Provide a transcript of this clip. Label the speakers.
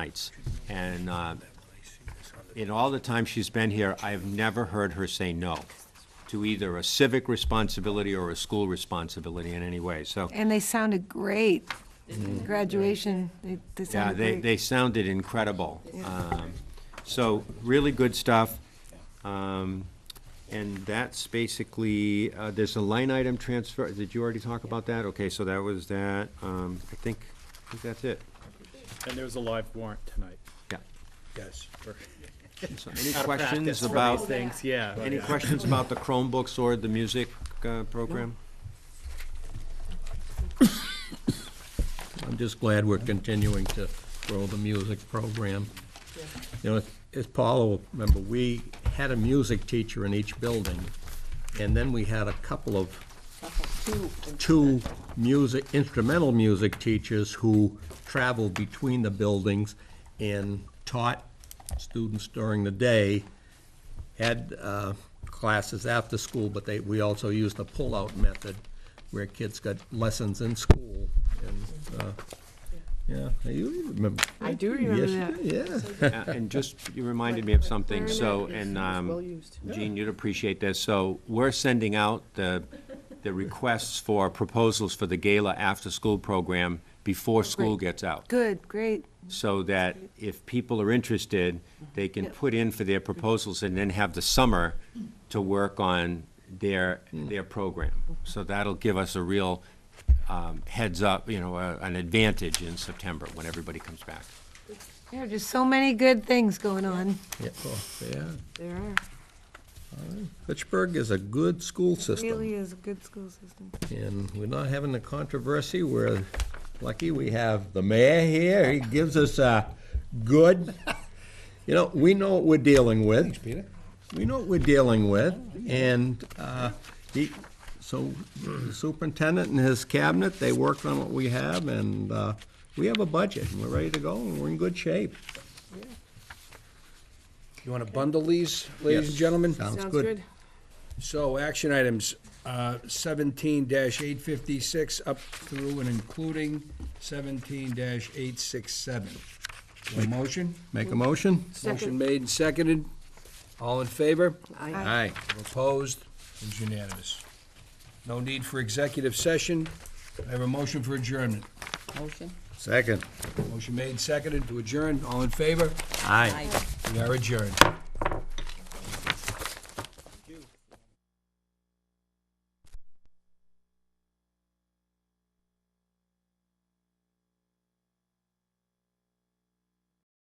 Speaker 1: nights. And uh, in all the time she's been here, I have never heard her say no to either a civic responsibility or a school responsibility in any way. So,
Speaker 2: And they sounded great. Graduation, they, they
Speaker 1: yeah,
Speaker 2: sounded
Speaker 1: they,
Speaker 2: great.
Speaker 1: they sounded incredible. Um, So, really good stuff. Um, And that's basically, uh, there's a line item transfer, did you already talk about that? Okay, so that was that. Um, I think, I think that's it.
Speaker 3: And there was a live warrant tonight.
Speaker 1: Yeah.
Speaker 4: Yes.
Speaker 1: So Any
Speaker 3: Out of practice
Speaker 1: questions
Speaker 3: for these
Speaker 1: about,
Speaker 3: Things, yeah.
Speaker 1: any questions about the Chromebooks or the music uh, program?
Speaker 5: I'm just glad we're continuing to grow the music program. You know, as Paula will remember, we had a music teacher in each building, and then we had a couple of, two music, instrumental music teachers who traveled between the buildings and taught students during the day, had uh, classes after school, but they, we also used the pull-out method, where kids got lessons in school, and, uh, yeah, you remember.
Speaker 6: I do remember
Speaker 5: Yes,
Speaker 6: that.
Speaker 5: you do, Yeah.
Speaker 1: Uh, And just, you reminded me of something, so, and
Speaker 6: Well
Speaker 1: um,
Speaker 6: used.
Speaker 1: Jean, you'd appreciate this. So we're sending out the, the requests for proposals for the gala after-school program before school gets out.
Speaker 2: Good, great.
Speaker 1: so that if people are interested, they can put in for their proposals and then have the summer to work on their, their program. So that'll give us a real um, heads up, you know, a- an advantage in September when everybody comes back.
Speaker 2: There are just so many good things going on.
Speaker 5: Yeah, oh, yeah.
Speaker 6: There are.
Speaker 5: Pittsburgh is a good school
Speaker 2: Really
Speaker 5: system,
Speaker 2: is a good school system.
Speaker 5: and we're not having the controversy. We're lucky we have the mayor here. He gives us a good, you know, we know what we're dealing with. Thanks, Peter. We know what we're dealing with, and uh, he, so the superintendent and his cabinet, they worked on what we have, and uh, we have a budget, and we're ready to go, and we're in good shape.
Speaker 4: You want to bundle these, ladies and
Speaker 5: Yes.
Speaker 4: gentlemen?
Speaker 5: Sounds
Speaker 6: Sounds
Speaker 5: good.
Speaker 6: good.
Speaker 4: So, action items, uh, seventeen eight fifty-six up through and including seventeen eight six seven. motion?
Speaker 5: Make a motion?
Speaker 4: Motion made and seconded. All in favor?
Speaker 6: I
Speaker 5: Aye.
Speaker 4: Opposed? It's unanimous. No need for executive session. I have a motion for adjournment.
Speaker 5: Second.
Speaker 4: Motion made, and seconded to adjourn. All in favor?
Speaker 5: Aye.
Speaker 4: We are adjourned.